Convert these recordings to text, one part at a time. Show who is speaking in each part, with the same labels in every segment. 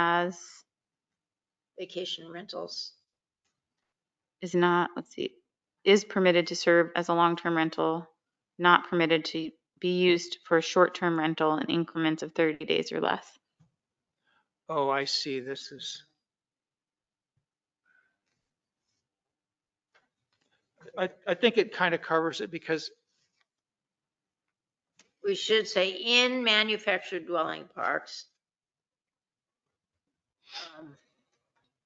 Speaker 1: as vacation rentals is not, let's see, is permitted to serve as a long-term rental, not permitted to be used for a short-term rental in increments of 30 days or less.
Speaker 2: Oh, I see. This is. I, I think it kind of covers it because,
Speaker 3: We should say in manufactured dwelling parks. Um,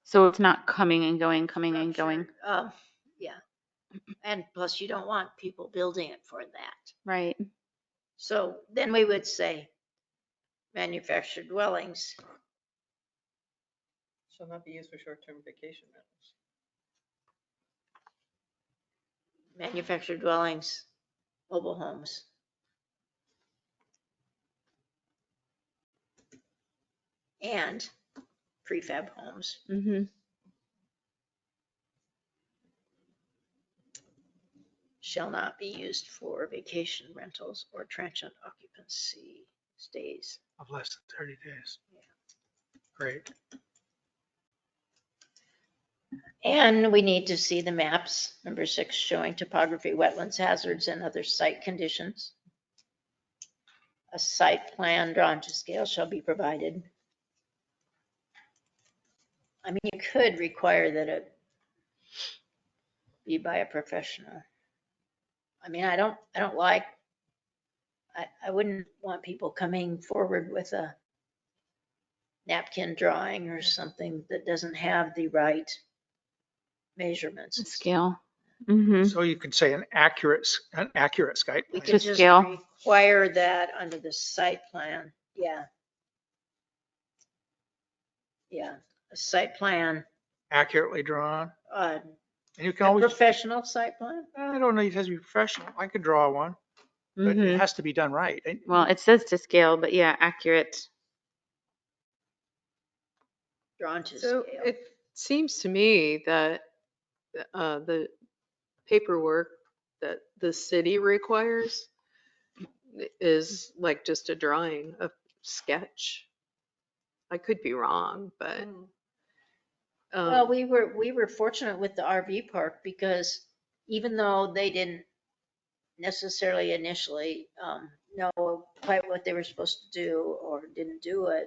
Speaker 1: So it's not coming and going, coming and going.
Speaker 3: structured, uh, Yeah. And plus you don't want people building it for that.
Speaker 1: Right.
Speaker 3: So then we would say manufactured dwellings.
Speaker 4: Shall not be used for short-term vacation rentals.
Speaker 3: manufactured dwellings, mobile homes. And prefab homes.
Speaker 1: Mm-hmm.
Speaker 3: shall not be used for vacation rentals or transient occupancy stays.
Speaker 2: of less than 30 days. Great.
Speaker 3: And we need to see the maps, number six, showing topography, wetlands, hazards, and other site conditions. A site plan drawn to scale shall be provided. I mean, you could require that it be by a professional. I mean, I don't, I don't like, I, I wouldn't want people coming forward with a napkin drawing or something that doesn't have the right measurements. and stuff.
Speaker 1: Scale. Mm-hmm.
Speaker 2: So you could say an accurate, s- an accurate site.
Speaker 3: Hmm? We
Speaker 2: plan.
Speaker 3: could
Speaker 1: To
Speaker 3: just
Speaker 1: scale.
Speaker 3: require that under the site plan, yeah. Yeah, a site plan,
Speaker 2: accurately drawn.
Speaker 3: uh,
Speaker 2: And you can
Speaker 3: a
Speaker 2: always,
Speaker 3: professional site plan?
Speaker 2: I don't know, it has to be professional. I could draw one, but
Speaker 1: Mm-hmm.
Speaker 2: it has to be done right. And
Speaker 1: Well, it says to scale, but yeah, accurate.
Speaker 3: Drawn to
Speaker 4: So
Speaker 3: scale.
Speaker 4: it seems to me that uh, the paperwork that the city requires is like just a drawing, a sketch. I could be wrong, but.
Speaker 3: Hmm. Well,
Speaker 4: um,
Speaker 3: we were, we were fortunate with the RV park because even though they didn't necessarily initially, um, know quite what they were supposed to do or didn't do it,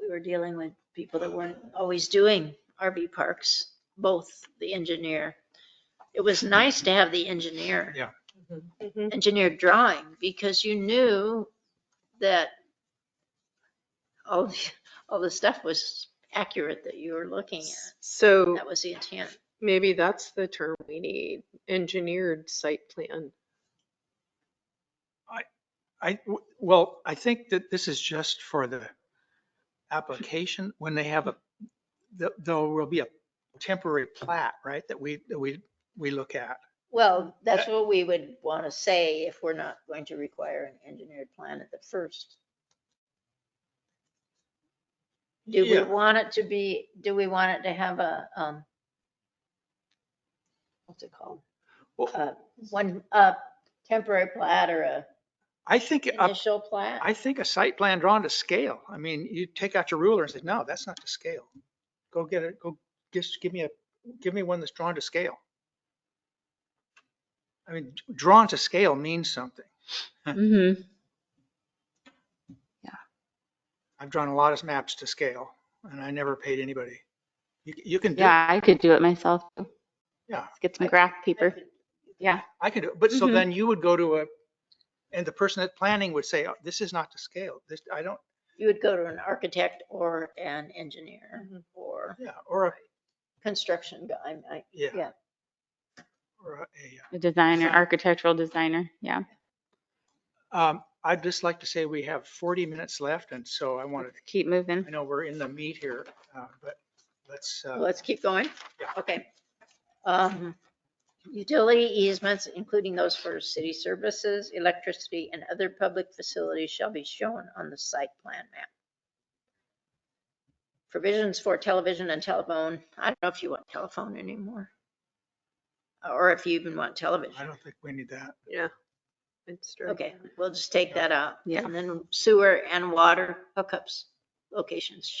Speaker 3: we were dealing with people that weren't always doing RV parks, both the engineer. It was nice to have the engineer
Speaker 4: Mhm.
Speaker 3: engineered drawing because you knew that all, the- all the stuff was accurate that you were looking at.
Speaker 4: So
Speaker 3: That was the intent.
Speaker 4: maybe that's the term we need, engineered site plan.
Speaker 2: I, w- well, I think that this is just for the application, when they have a, th- there will be a temporary plat, right, that we, that we, we look at.
Speaker 3: Well,
Speaker 2: Uh,
Speaker 3: that's what we would want to say if we're not going to require an engineered plan at the first. Do we
Speaker 2: Yeah.
Speaker 3: want it to be, do we want it to have a, um, what's it called?
Speaker 2: Well-
Speaker 3: Uh, one, uh, temporary plat or a
Speaker 2: I think, a-
Speaker 3: initial plat?
Speaker 2: I think a site plan drawn to scale. I mean, you take out your ruler and say, no, that's not to scale. Go get it, go, just give me a, give me one that's drawn to scale. I mean, drawn to scale means something.
Speaker 1: Mm-hmm.
Speaker 2: I've drawn a lot of maps to scale and I never paid anybody. You, you can do, it.
Speaker 1: Yeah, I could do it myself.
Speaker 2: Yeah.
Speaker 1: Let's get some graph paper. Yeah.
Speaker 2: I can do, it. but so
Speaker 1: Mhm.
Speaker 2: then you would go to a, and the person at planning would say, "Oh, this is not to scale. This, I don't,
Speaker 3: You would go to an architect or an engineer
Speaker 4: Mhm.
Speaker 3: or
Speaker 2: yeah, or, a
Speaker 3: construction guy. I-
Speaker 2: yeah.
Speaker 3: Yeah.
Speaker 2: Or a, yeah.
Speaker 1: A designer,
Speaker 2: So-
Speaker 1: architectural designer. Yeah.
Speaker 2: Um, I'd just like to say we have 40 minutes left and so I wanted,
Speaker 1: Let's keep moving.
Speaker 2: I know we're in the meat here, uh, but let's, uh,
Speaker 3: Let's keep going.
Speaker 2: Yeah.
Speaker 3: Okay. Um, Utility easements, including those for city services, electricity, and other public facilities shall be shown on the site plan map. Provisions for television and telephone. I don't know if you want telephone anymore. Or if you even want
Speaker 2: I
Speaker 3: television.
Speaker 2: don't think we need that.
Speaker 4: Yeah. I'd strike
Speaker 3: Okay,
Speaker 4: that.
Speaker 3: we'll just take that out.
Speaker 1: Yeah.
Speaker 3: And then sewer and water hookups locations